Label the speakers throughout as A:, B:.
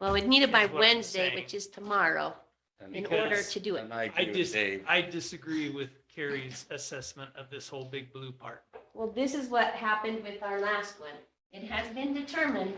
A: Well, we'd need it by
B: Is what I'm
A: Wednesday,
B: saying.
A: which is tomorrow,
C: And
A: in
B: Because-
A: order to do it.
C: And I
B: I
C: agree with
B: dis,
C: Dave.
B: I disagree with Carrie's assessment of this whole big blue part.
A: Well, this is what happened with our last one. It has been determined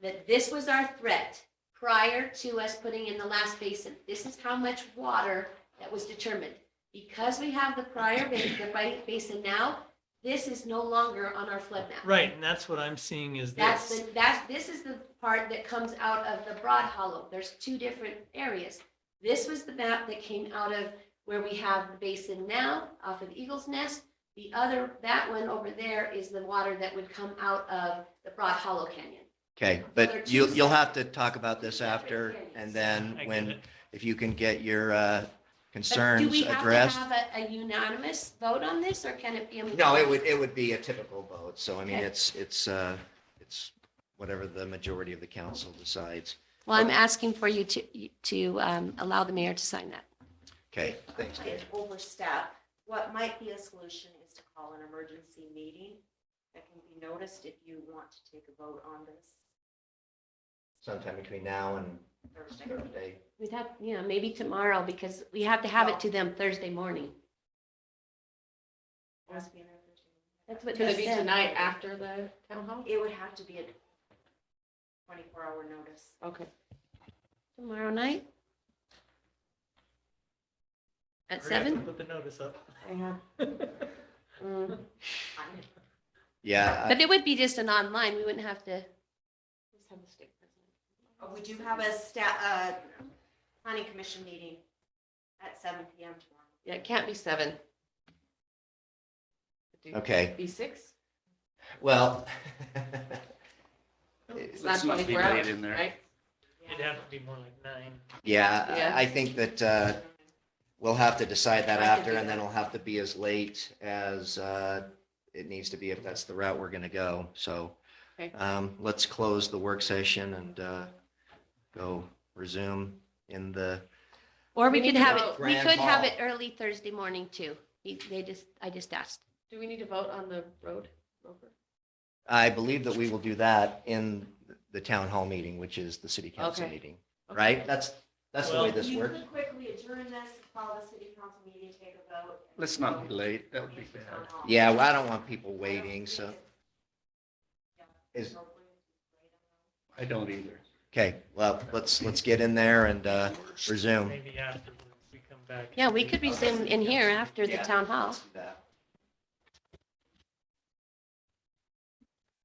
A: that this was our threat prior to us putting in the last basin. This is how much water that was determined. Because we have the prior basin, the right basin now, this is no longer on our flood map.
B: Right, and that's what I'm seeing is
A: That's
B: this.
A: the, that's, this is the part that comes out of the Broad Hollow. There's two different areas. This was the map that came out of where we have the basin now off of Eagles Nest. The other, that one over there is the water that would come out of the Broad Hollow Canyon.
D: Okay,
A: They're
D: but
A: two
D: you, you'll have to
A: separate-
D: talk about this
A: separate
D: after
A: areas.
D: and
B: I
D: then
B: get
D: when,
B: it.
D: if you can get your uh,
A: But Do
D: concerns
A: we have to
D: addressed.
A: have a- a unanimous vote on this or can it be? a
D: No, it would, it would be a typical vote. So I mean,
A: Okay.
D: it's, it's, uh, it's whatever the majority of the council decides.
A: Well, I'm asking for you to, to um, allow the mayor to sign that.
D: Okay, thanks,
E: might
D: Dave.
E: overstep, what might be a solution is to call an emergency meeting that can be noticed if you want to take a vote on this
D: Sometime between now and
E: Thursday.
D: Thursday.
A: We'd have, you know, maybe tomorrow because we have to have it to them Thursday morning.
E: It has to be an emergency.
A: That's what
F: Could
A: they
F: it be
A: said.
F: tonight after the town hall?
E: It would have to be a twenty-four hour notice.
F: Okay.
A: Tomorrow night? At
B: Hurry up and
A: seven?
B: Put the notice up.
A: Mm.
E: I'm-
D: Yeah,
A: But it would be just an online, we wouldn't have to,
E: Uh, We do have a sta, uh, planning commission meeting at seven P M tomorrow.
F: Yeah, it can't be seven.
D: I- okay,
F: Be six?
D: well.
F: It's not
C: Let's not be
F: 24
C: late
F: hours,
C: in there.
F: right?
B: It'd have to be more like nine.
D: Yeah,
F: Yeah.
D: I I think that uh, we'll have to decide that
F: I can
D: after,
F: do
D: and then
F: that.
D: it'll have to be as late as uh, it needs to be if that's the route we're going to go. So
F: Okay.
D: um, let's close the work session and uh, go resume in the,
A: or we
F: We
A: could
F: need to
A: have
F: vote.
A: it, we
D: Grand
A: could have
D: Hall.
A: it early Thursday morning too. He- They just, I just asked.
F: Do we need to vote on the road? Rover?
D: I believe that we will do that in the town hall meeting, which is the city council
F: Okay.
D: meeting, right? That's, that's the way
B: Well-
D: this
E: You
D: works.
E: could quickly adjourn this, call the city council meeting, take a vote. and
C: Let's not be
E: vote.
C: late. That would be bad.
D: Yeah, well, I don't want people waiting, so, Is-
C: I don't either.
D: okay, well, let's, let's get in there and uh, resume.
B: Maybe afterwards we come back.
A: Yeah, we could resume in here after the
D: Yeah.
A: town hall.
D: Let's do that.